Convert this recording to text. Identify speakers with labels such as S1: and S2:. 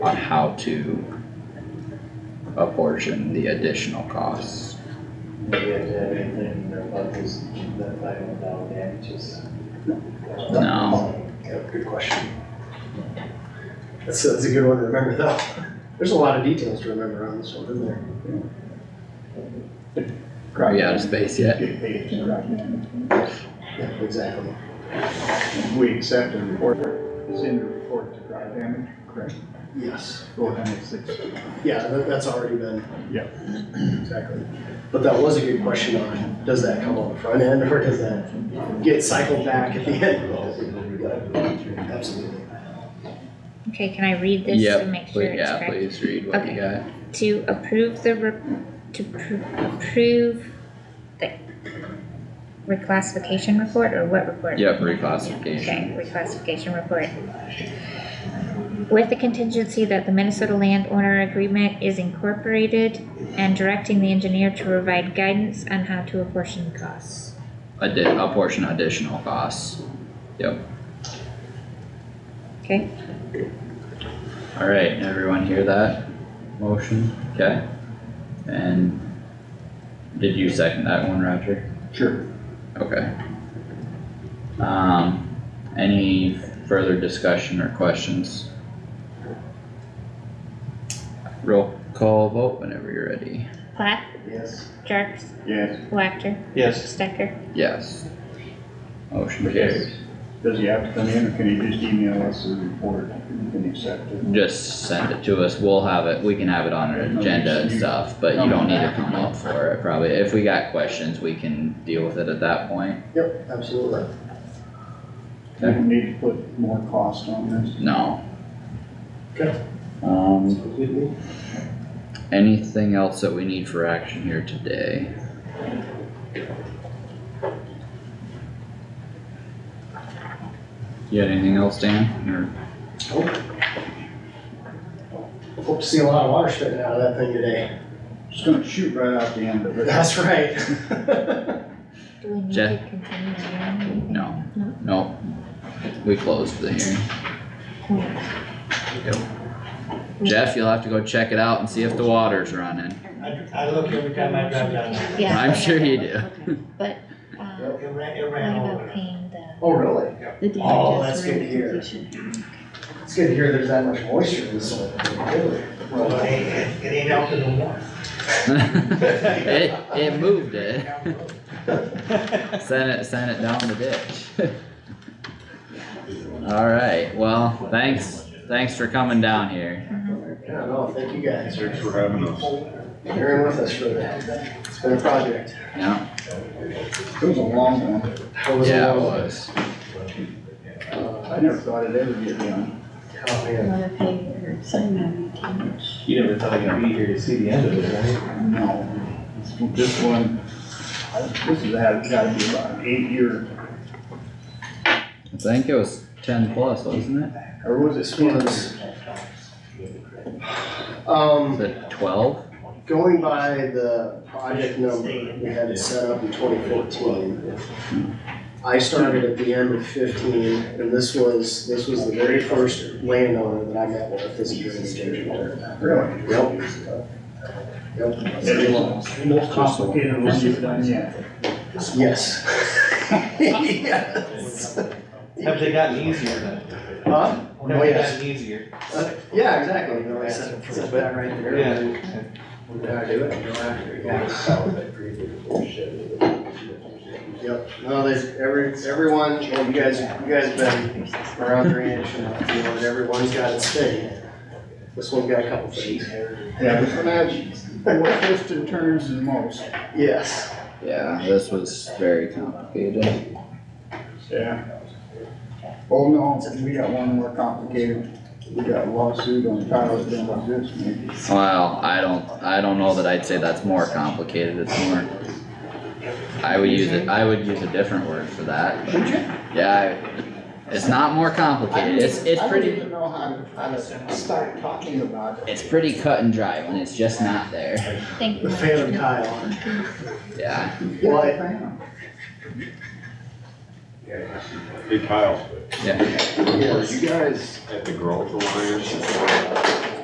S1: on how to apportion the additional costs.
S2: Maybe you have to have anything in their budgets that I don't know, man, just.
S1: No.
S3: Yeah, good question. That's, that's a good one to remember though. There's a lot of details to remember on this one, isn't there?
S1: Probably out of space yet.
S3: Yeah, exactly.
S4: We accept and report, is in the report to drive damage, correct?
S3: Yes.
S4: Four hundred six.
S3: Yeah, that, that's already been.
S4: Yeah.
S3: Exactly. But that was a good question on, does that come on the front end or does that get cycled back at the end? Absolutely.
S5: Okay, can I read this to
S1: Yep,
S5: make sure
S1: please,
S5: it's
S1: yeah,
S5: correct?
S1: please read what you
S5: Okay.
S1: got.
S5: To approve the, re- to pr- approve the reclassification report or what report?
S1: Yep, reclassification.
S5: Okay, reclassification report. With the contingency that the Minnesota landowner agreement is incorporated and directing the engineer to provide guidance on how to apportion costs.
S1: Addi- apportion additional costs. Yep.
S5: Okay,
S1: Alright, everyone hear that motion? Okay. And did you second that one, Roger?
S4: Sure.
S1: Okay. Um, any further discussion or questions? Roll call vote whenever you're ready.
S5: Plath,
S2: Yes.
S5: Jerks,
S4: Yes,
S5: Wactor,
S2: Yes.
S5: Stecker,
S1: Yes. Motion carries.
S4: does he have to come in or can he just email us the report and we can accept it?
S1: Just send it to us, we'll have it, we can have it on our agenda and stuff, but you don't need to come up for it probably. If we got questions, we can deal with it at that point.
S3: Yep, absolutely.
S4: Do we need to put more cost on this?
S1: No.
S3: Okay.
S1: Um,
S3: Completely.
S1: anything else that we need for action here today? You got anything else, Dan, or?
S3: Hope to see a lot of water spitting out of that thing today.
S4: Just gonna shoot right out the end of it.
S3: That's right.
S5: do we need
S1: Jeff?
S5: to continue on anything?
S1: No.
S5: No.
S1: Nope. We closed the hearing. Jeff, you'll have to go check it out and see if the water's running.
S2: I, I look every time I drive down there.
S5: Yeah.
S1: I'm
S5: I
S1: sure
S5: know.
S1: you do.
S5: But, um,
S2: It ran, it
S5: what
S2: ran over.
S5: about paying the,
S3: Oh, really?
S6: The damages.
S3: Oh, that's
S6: were
S3: good to hear.
S6: completion.
S3: It's good to hear there's that much moisture in the soil. Really?
S2: Well, it ain't, it- it ain't out in the water.
S1: It, it moved it. Sent it, sent it down the ditch. Alright, well, thanks, thanks for coming down here.
S3: Yeah, no, thank you guys
S4: Thanks for having us.
S3: for bearing with us for that. It's been a project.
S1: Yeah,
S4: It was a long one.
S3: It Uh, was a
S1: yeah, it
S3: long-
S1: was.
S4: I never thought it'd ever get done.
S3: Oh,
S6: A
S3: man.
S6: lot of paper, so many damages.
S2: You never thought you'd be here to see the end of it, right?
S4: No, this one, this has had, gotta be about an eight year,
S1: I think it was ten plus, wasn't it?
S4: or was it sooner?
S3: Um.
S1: Was it twelve?
S3: Going by the project number we had it set up in twenty fourteen. I started at the end of fifteen, and this was, this was the very first landowner that I met with as a drainage engineer.
S4: Really?
S3: Yep. Yep.
S4: Most complicated one you've done yet.
S3: Yes. Yes.
S2: Have they gotten easier then?
S3: Huh?
S2: Have
S3: Oh,
S2: they
S3: yes.
S2: gotten easier?
S3: Uh, Yeah, exactly. No, I said it for that right there.
S2: Yeah.
S3: We gotta do it, we go after it, yes. Yep, no, there's every, everyone, well, you guys, you guys have been around drainage and, you know, everyone's got its thing. This one's got a couple things.
S4: Yeah, this one had more twists and turns than most.
S3: Yes,
S1: Yeah, this was very complicated.
S4: Yeah. Oh, no, we got one more complicated. We got a lawsuit on Tyler than what this maybe.
S1: Well, I don't, I don't know that I'd say that's more complicated, it's more. I would use it, I would use a different word for that.
S4: Would you?
S1: Yeah, I- it's not more complicated, it's, it's
S4: I don't
S1: pretty,
S4: even know how to, how to start talking about it.
S1: it's pretty cut and dry when it's just not there,
S5: thank you.
S3: the phantom tile.
S1: yeah.
S3: Well, I-
S4: Well,
S7: Hey Kyle,
S1: Yeah.
S7: were
S3: Yes.
S7: you guys at the Growth Alliance